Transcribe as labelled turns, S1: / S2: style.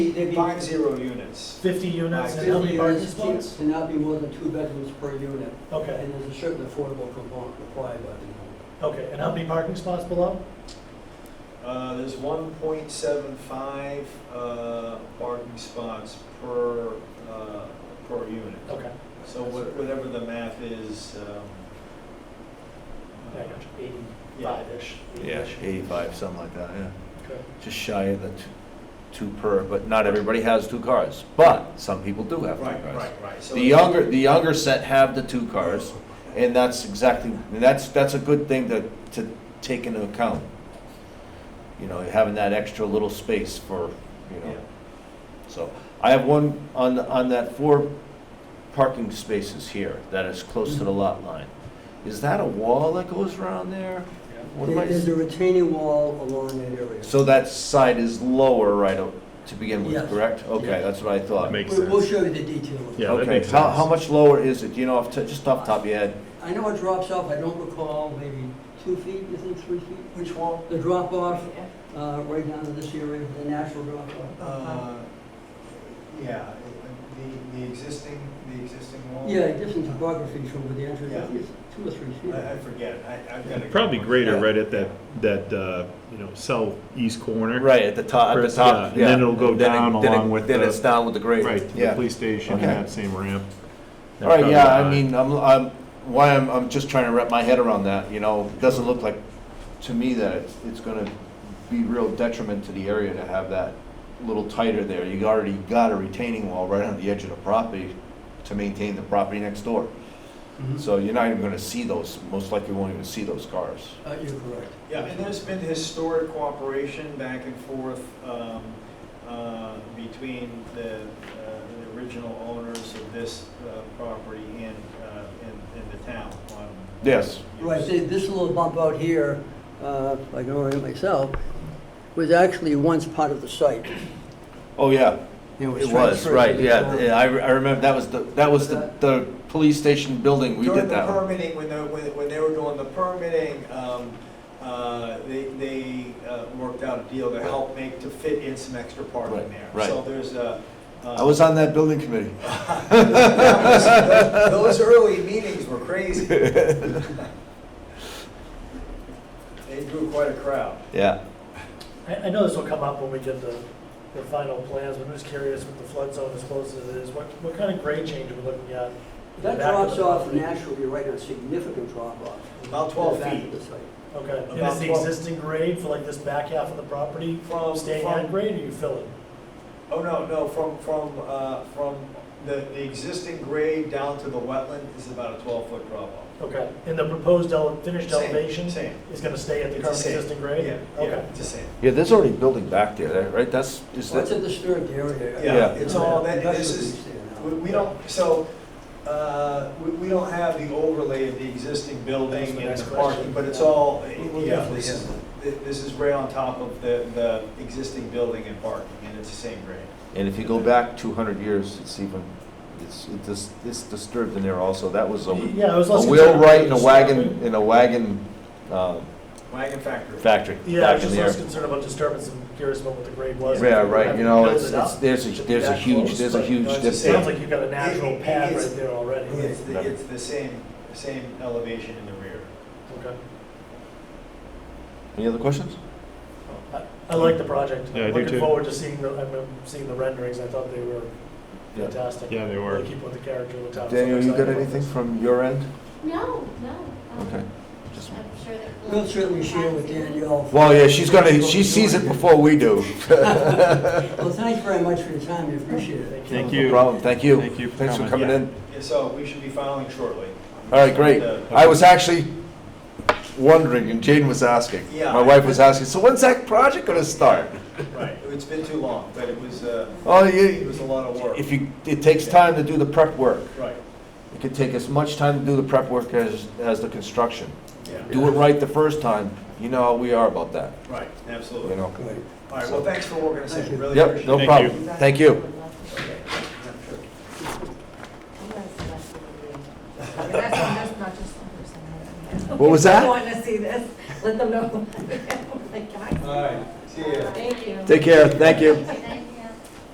S1: They'd be
S2: Five zero units.
S3: 50 units and how many
S1: fifty
S3: parking
S1: units
S3: spots?
S1: to not be more than two bedrooms per unit,
S3: Okay,
S1: and there's a certain affordable component required by the
S3: okay, and how many parking spots below?
S2: Uh, there's one point seven five, uh, parking spots per, uh, per unit.
S3: Okay.
S2: So what- whatever the math is, um.
S3: Yeah, I got you. 85-ish.
S4: Yeah,
S3: 80-ish.
S4: eighty-five, something like that, yeah.
S3: Okay.
S4: Just shy of the t- two per, but not everybody has two cars, but some people do have two
S2: Right,
S4: cars.
S2: right, right. So
S4: The
S2: it's- Oh,
S4: younger, the younger set have the two cars, and that's exactly, and that's, that's a good thing to, to take into account. You know, having that extra little space for, you
S2: Yeah.
S4: know, so. I have one on, the- on that four parking spaces here that is close to the lot line. Is that a wall that goes around there? What am
S1: homeowner.
S4: I-
S1: There's a retaining wall along that area.
S4: So that side is lower right o- to begin with,
S1: Yes.
S4: correct? Okay,
S1: Yes.
S4: that's what I thought.
S5: Makes
S1: We- We'll
S5: sense.
S1: show you the detail. of it.
S5: Yeah, that
S4: Okay,
S5: makes
S4: how,
S5: sense.
S4: how much lower is it, you know, off, t- just off the top of your head?
S1: I know it drops off, I don't recall, maybe two feet, you think, three feet?
S2: Which one?
S1: The drop off, uh, right down to this area, the natural drop off.
S2: Uh, yeah, it- the, the existing, the existing wall?
S1: Yeah, different topography from where the entrance, I
S2: Yeah.
S1: think it's two or three feet.
S2: I, I forget, I, I've got.
S5: Probably greater
S4: Yeah.
S5: right at that, that, uh, you know, southeast corner.
S4: Right, at the top, at the
S5: First, yeah,
S4: top,
S5: and
S4: yeah.
S5: then it'll go
S4: Then it-
S5: down
S4: then it-
S5: along with
S4: Then
S5: the-
S4: it's down with the grade.
S5: Right, to the
S4: yeah.
S5: police station and
S4: Okay.
S5: that same ramp.
S4: All right,
S5: Probably
S4: yeah, I
S5: behind.
S4: mean, I'm, I'm, why I'm, I'm just trying to wrap my head around that, you know? It Doesn't look like, to me, that it's, it's gonna be real detriment to the area to have that little tighter there. You already got a retaining wall right on the edge of the property to maintain the property next door.
S1: Mhm.
S4: So you're not even gonna see those, most likely won't even see those cars.
S1: Uh, You're correct.
S2: Yeah, and there's been historic cooperation back and forth um, uh, between the uh, the original owners of this uh, property and, uh, and and the town on.
S4: Yes.
S1: Right, see, this little bump out here, uh, if I can orient myself, was actually once part of the site.
S4: Oh, yeah, it was,
S1: transferred
S4: right,
S1: to the
S4: yeah,
S1: town.
S4: yeah, I, re- I remember, that was the, that was the,
S1: That-
S4: the police station building, we
S2: During
S4: did
S2: the
S4: that one.
S2: permitting, when the, when, when they were doing the permitting, um, uh, they, they, uh, worked out a deal to help make, to fit in some extra parking
S4: Right,
S2: there.
S4: right.
S2: So there's a. uh,
S4: I was on that building committee.
S2: That was- Those early meetings were crazy. They drew quite a crowd.
S4: Yeah,
S3: I, I know this will come up when we get the, the final plans, but I'm just curious with the flood zone as close as it is, what, what kind of grade change are we looking at? in the
S1: That
S3: back of
S1: drops
S3: the
S1: off
S3: property?
S1: naturally, right, a significant drop off.
S2: About 12
S1: Back
S2: feet.
S1: of the site.
S3: Okay, and
S2: About
S3: is the
S2: twelve.
S3: existing grade for like this back half of the property
S2: From,
S3: staying
S2: from-
S3: at grade or you fill it?
S2: Oh, no, no, from, from, uh, from the, the existing grade down to the wetland is about a twelve-foot drop-off.
S3: Okay, and the proposed ele, finished
S2: Same,
S3: elevation
S2: same.
S3: is gonna stay at the
S2: It's the
S3: current
S2: same.
S3: existing grade?
S2: Yeah, yeah,
S3: Okay.
S2: it's the same.
S4: yeah, there's already building back there, right, that's, is
S1: Well, It's a
S4: that,
S1: disturbed area.
S2: Yeah,
S4: Yeah.
S2: it's all, that,
S1: That's
S2: this
S1: what
S2: is,
S1: we see now.
S2: we, we don't, so, uh, we, we don't have the overlay of the existing
S3: That's
S2: building
S3: the
S2: and
S3: next
S2: the parking,
S3: question.
S2: but it's all,
S1: we'll
S2: yeah,
S1: definitely
S2: this is,
S1: have
S2: thi- this is right on top of the, the existing building and parking, and it's the same grade.
S4: and if you go back two hundred years, it's even, it's, it dis it's disturbed in there also, that was a, a
S3: Yeah, it was less. concerned
S4: wheelwright and a
S3: about
S4: wagon,
S3: disturbing-
S4: and a wagon, uh,
S2: Wagon factory.
S4: factory
S3: Yeah, I
S4: back
S3: was
S4: in
S3: just
S4: there.
S3: less concerned about disturbance and curious about what the grade was.
S4: Yeah,
S3: If we
S4: right,
S3: have
S4: you
S3: to
S4: know,
S3: build
S4: it's,
S3: it up,
S4: it's, there's, a-
S3: should be
S4: there's a
S3: that
S4: huge,
S3: close,
S4: there's a
S3: but,
S4: huge
S3: no, it's-
S4: dip
S3: It
S2: there.
S3: sounds like you've got a natural
S2: It- it-
S3: pad
S2: it's-
S3: right there already.
S2: It's, the-
S4: Right.
S2: it's the same, same elevation in the rear.
S3: Okay.
S4: Any other questions?
S3: I- I like the project.
S5: Yeah, I
S3: I'm
S5: do
S3: Looking
S5: too.
S3: forward to seeing the, I remember seeing the renderings, I thought they were
S4: Yeah.
S3: fantastic.
S5: Yeah, they were.
S3: Really keep with the character of the town. So
S4: Daniel, you
S3: excited
S4: got
S3: about
S4: anything
S3: this.
S4: from your end?
S6: No, no. um,
S4: Okay. Just-
S6: I'm sure that.
S1: We'll certainly share with Danielle.
S4: Well, yeah, she's gonna, she sees it before we do.
S1: Well, thanks very much for your time, we appreciate it.
S5: Thank
S4: No
S5: you.
S4: problem, thank you.
S5: Thank you for
S4: Thanks for
S5: coming.
S4: coming
S2: Yeah.
S4: in.
S2: Yeah, so we should be filing shortly. uh,
S4: All right, great.
S2: The-
S4: I was actually wondering, and Jane was asking,
S2: Yeah.
S4: my wife was asking, so when's that project gonna start?
S2: Right, it's been too long, but it was, uh,
S4: Oh,
S2: it
S4: you,
S2: was a lot of work.
S4: if you, it takes time to do the prep work.
S2: Right,
S4: It could take as much time to do the prep work as, as the construction.
S2: yeah,
S4: Do it right the first time, you know how we are about that,
S2: right, absolutely.
S4: you know?
S1: Great.
S2: All right, well, thanks for working us
S1: Thank
S2: in,
S1: you.
S2: really
S4: Yep,
S2: appreciate it.
S4: no
S5: Thank
S4: problem. Thank you.
S2: Okay.
S6: That's not- that's not just one person.
S4: What was that?
S6: I want to see this. Let them know. who I am. Like, can I-
S2: All right, see ya.
S6: Thank you.
S4: Take care, thank you.
S6: Thank